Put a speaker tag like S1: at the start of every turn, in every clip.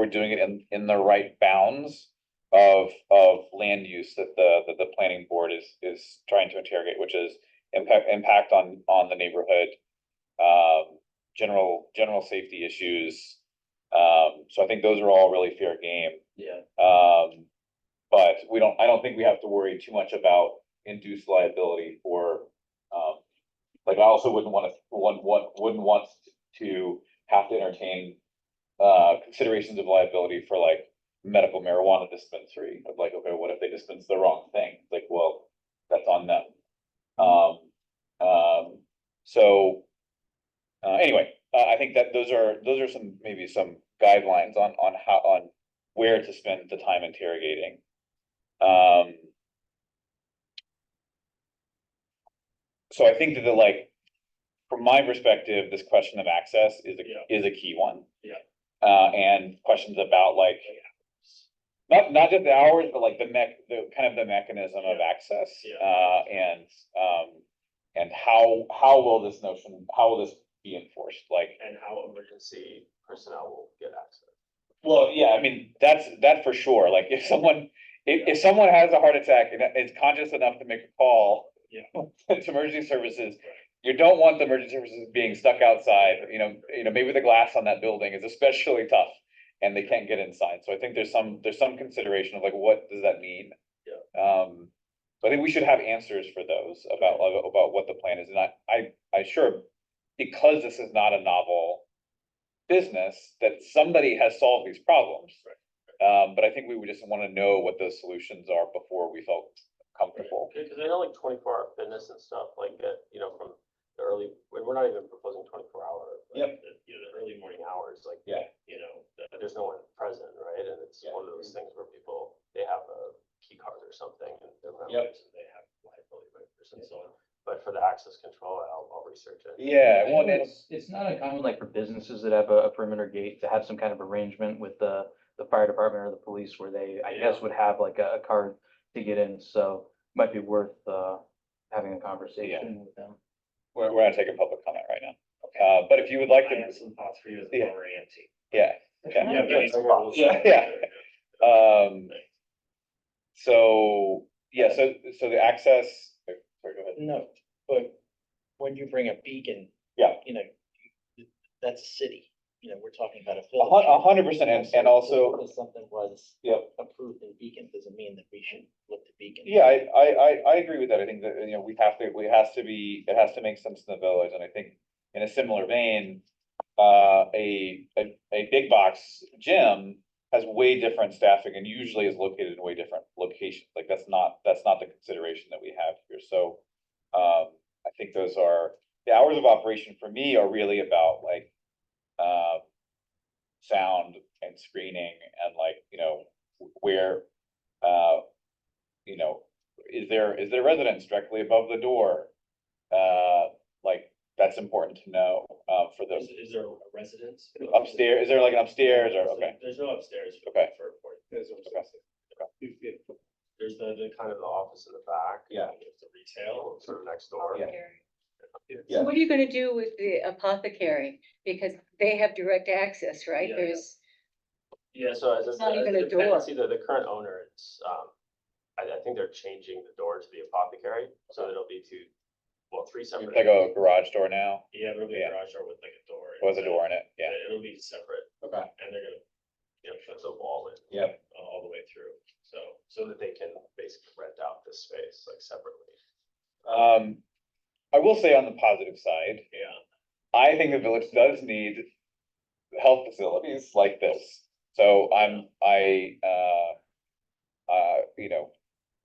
S1: we're doing it in, in the right bounds of, of land use that the, that the planning board is, is trying to interrogate, which is impact, impact on, on the neighborhood, um, general, general safety issues. Um, so I think those are all really fair game.
S2: Yeah,
S1: Um, but we don't, I don't think we have to worry too much about induced liability for, um, like I also wouldn't want to, one, one, wouldn't want to have to entertain uh, considerations of liability for like medical marijuana dispensary of like, okay, what if they dispense the wrong thing? Like, well, that's on them. Um, um, so, uh, anyway, uh, I think that those are, those are some, maybe some guidelines on, on how, on where to spend the time interrogating. Um. So I think that the like, from my perspective, this question of access is
S2: Yeah.
S1: a, is a key one.
S2: Yeah.
S1: Uh, and questions about like. Not, not just the hours, but like the mech, the kind of the mechanism of access.
S2: Yeah.
S1: Uh, and, um, and how, how will this notion, how will this be enforced? Like,
S2: and how emergency personnel will get access.
S1: well, yeah, I mean, that's, that for sure, like, if someone, if, if someone has a heart attack and is conscious enough to make a call.
S2: Yeah.
S1: To emergency services, you don't want the emergency services being stuck outside, you know, you know, maybe the glass on that building is especially tough. And they can't get inside, so I think there's some, there's some consideration of like, what does that mean? Yeah. Um, so I think we should have answers for those about, about what the plan is, and I, I, I sure, because this is not a novel business that somebody has solved these problems. Um, but I think we would just wanna know what those solutions are before we felt comfortable.
S2: Because I know like twenty-four hour fitness and stuff like that, you know, from the early, when we're not even proposing twenty-four hour. but
S1: Yep.
S2: the- You know, the early morning hours, like.
S1: Yeah.
S2: You know, th- there's no one present, right? And it's
S1: Yeah.
S2: one of those things where people, they have a key card or something and they're. not
S1: Yep.
S2: using- They have liability by person, so, on. but for the access control, I'll, I'll research it.
S1: Yeah,
S3: I
S1: well,
S3: know
S1: it's,
S3: It's it's not uncommon, like for businesses that have a a perimeter gate, to have some kind of arrangement with the, the fire department or the police where they, I guess, would have like a a card to get in, so might be worth, uh, having a conversation with them.
S1: we're, we're not taking public comment right now. Uh, but if you would like
S4: I
S1: to,
S4: have some thoughts for you as a
S1: Yeah.
S4: former EMT.
S1: yeah, yeah,
S2: E Yeah,
S4: Yeah,
S2: but-
S1: yeah, yeah. um. So, yeah, so, so the access, sorry, go ahead.
S4: No, but when you bring a beacon.
S1: Yeah.
S4: You know, that's a city, you know, we're talking about a
S1: A hun-
S4: village.
S1: a hundred percent, and, and also,
S4: Because Something was.
S1: Yep.
S4: Approved in Beacon doesn't mean that we should look to Beacon.
S1: Yeah, I, I, I, I agree with that. I think that, you know, we have to, we has to be, it has to make sense in the village, and I think in a similar vein. Uh, a, a, a big box gym has way different staffing and usually is located in way different locations. Like, that's not, that's not the consideration that we have here, so. Um, I think those are, the hours of operation for me are really about like, uh. Sound and screening and like, you know, where, uh, you know, is there, is there residence directly above the door? Uh, like, that's important to know, uh, for
S5: Is,
S1: the
S5: is there a residence?
S1: upstairs, is there like an upstairs or,
S5: There's-
S1: okay,
S5: There's no upstairs. for-
S1: Okay.
S5: For, for,
S1: okay.
S5: there's the, the
S2: Kind of the office in the back.
S1: Yeah.
S2: and There's the retail sort of next door.
S6: Apothecary.
S1: Yeah.
S6: So what are you gonna do with the apothecary? Because they have direct access, right?
S5: Yeah, yeah.
S6: There's,
S2: Yeah, so as I
S6: It's not
S2: said,
S6: even
S2: the
S6: a door.
S2: tendency, the, the current owner is, um, I, I think they're changing the door to the apothecary, so it'll be two, well, three separate.
S1: Like a garage door now,
S5: yeah, it'll be
S1: Yeah.
S5: a garage door with like a door.
S1: was a
S5: inside.
S1: door in it, yeah.
S5: Yeah, It'll be separate
S1: Okay.
S5: and they're gonna, you know, put the wall in.
S1: Yep.
S5: a- All the way through, so.
S2: So that they can basically rent out this space like separately.
S1: Um, I will say on the positive side,
S5: Yeah.
S1: I think the village does need health facilities like this. So I'm, I, uh, uh, you know,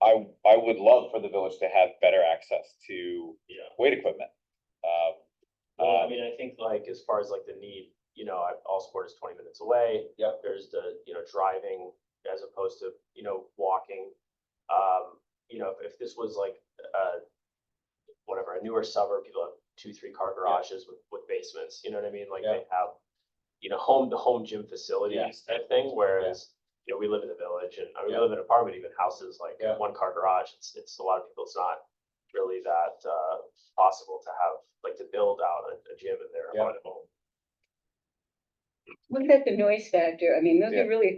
S1: I, I would love for the village to have better access to
S5: Yeah.
S1: weight equipment. Um,
S2: Well, Uh, I
S1: um,
S2: mean, I think like as far as like the need, you know, I- all sport is twenty minutes away.
S1: Yep.
S2: There's the, you know, driving as opposed to, you know, walking. Um, you know, if if this was like, uh, whatever, a newer suburb, people have two, three car garages with, with basements, you know what I mean? Like they have, you know, home, the home gym facilities type thing, whereas, you know, we live in the village and I mean, we
S1: Yeah.
S2: live in an apartment, even houses like
S1: Yeah.
S2: one car garage, it's, it's a lot of people, it's not really that, uh, possible to have, like to build out a, a gym in their
S1: Yeah.
S2: apartment home.
S6: Look at the noise factor. I mean, those
S1: Yeah.
S6: are really